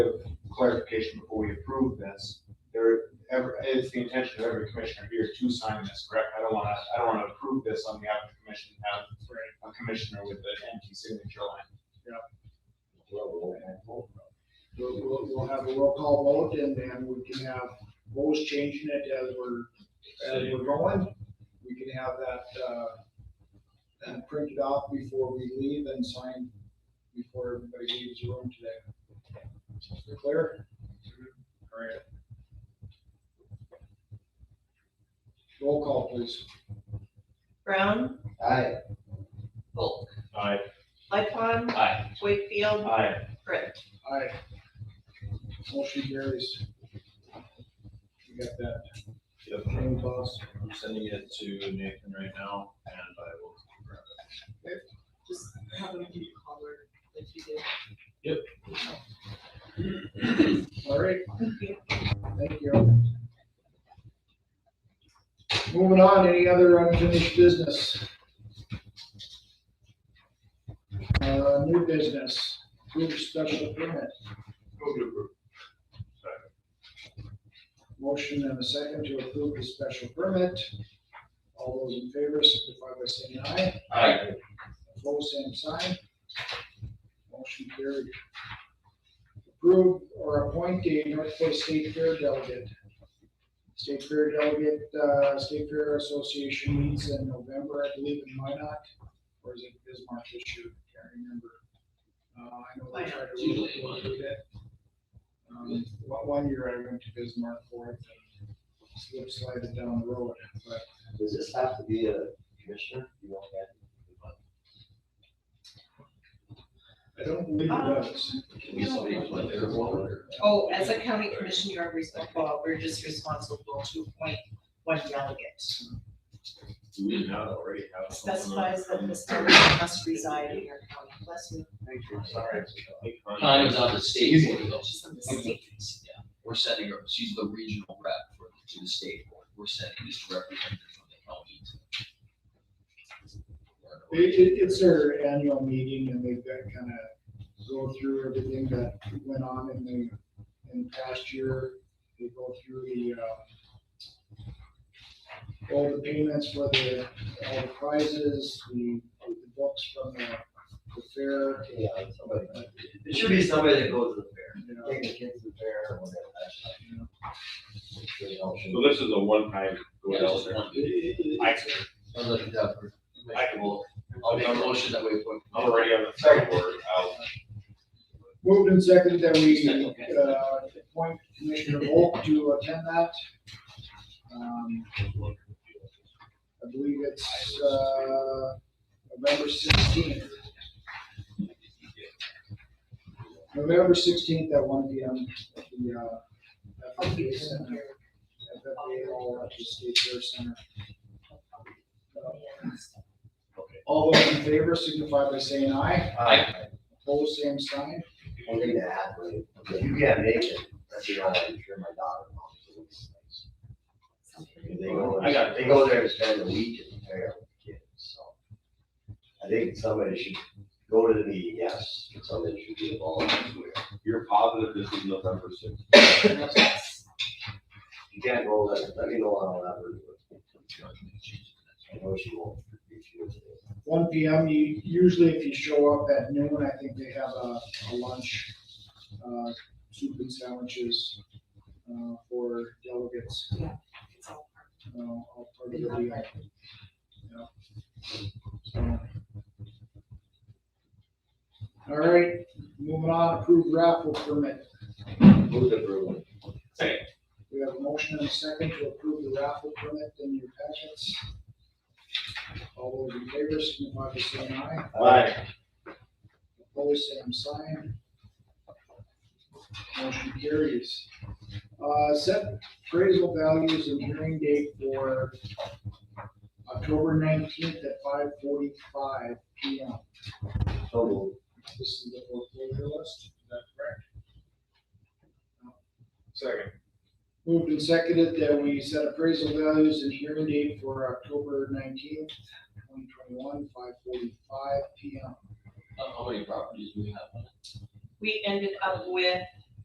clarification before we approve this. There, ever, it's the intention of every commissioner here to sign this, correct? I don't wanna, I don't wanna approve this on behalf of the commission, have a commissioner with an empty signature line. We'll, we'll, we'll have a roll call vote and then we can have Bo's changing it as we're, as we're going. We can have that, uh, and printed off before we leave and signed before everybody leaves the room today. Is that clear? All right. Roll call, please. Brown, Aye. Volk, Aye. Lightcon, Aye. Wakefield, Aye. Brett. Aye. Motion carries. We got that. Yep. Name clause. I'm sending it to Nathan right now, and I will grab it. Just have them do color if you All right. do. Thank you. Moving on, any other unfinished business? Uh, new business, group special permit, motion and a second to approve the special permit. All those in favor signify by saying aye. Aye. Opposed, same sign. Motion carried. Approve or appoint a North Dakota State Fair delegate. State Fair delegate, uh, State Fair Association meets in November, I believe, in Minot, or is it Bismarck this year? Can't remember. Uh, I know they tried to. Usually one. Um, one, one year I went to Bismarck for it, and slip slided down the road, but Does this have to be a commissioner? You don't have. I don't believe it does. Can we somebody put their water? Oh, as a county commission, you are responsible, we're just responsible to appoint one delegate. Do we not already have? someone Specifies that from- this delegate must reside in your county, bless me. Thank you, sorry. Connie's on the state board though. She's on the state. We're setting her, she's the regional rep for, to the state board. We're setting this representative from the county. to- It, it, it's their annual meeting and they've got kind of go through everything that went on in the, in the past year. They go through the, uh, all the payments for the, all the prizes, the, the books from the, the fair, Yeah, somebody. It should be somebody that goes to the fair. you know. Take the kids to the fair or whatever. that's not, you know. It's really all should- this is a one-time Yeah, just one. It- it- I, I'm looking down for. I will. I'll make a motion that we put. I'm already on the second board, I'll, Moved and seconded that we, uh, appoint Commissioner Volk to attend that. Um, I believe it's, uh, November sixteenth. November sixteenth at one P M at the, uh, FFA Center, FFA Hall at the State Fair Center. All those in favor signify by saying aye. Aye. Opposed, same sign. One thing to add, like, if you can't make it, that's the only, I'm sure my daughter. wants to do these things. They go, I got- they go there to spend a week at the fair with the kids, so. I think somebody should go to the meeting, yes, but somebody should be involved. you're positive this is November sixth. You can't go, let, let me know on that, but I know she won't. if she was there. one P M, you, usually if you show up at noon, I think they have a, a lunch, uh, soup and sandwiches, uh, for delegates, uh, all part of the deal. Yeah. So. All right, moving on, approved raffle permit. Move the room. We have a motion and a second to approve the raffle permit in your packets. All those in favor, signify by saying aye. Aye. Opposed, same sign. Motion carries. Uh, set appraisal values and hearing date for October nineteenth at five forty-five P M. So moved. This is the foreclosure list, is that correct? Second. Moved and seconded that we set appraisal values and hearing date for October nineteenth, twenty twenty-one, five forty-five P M. How many properties do we have? We ended up with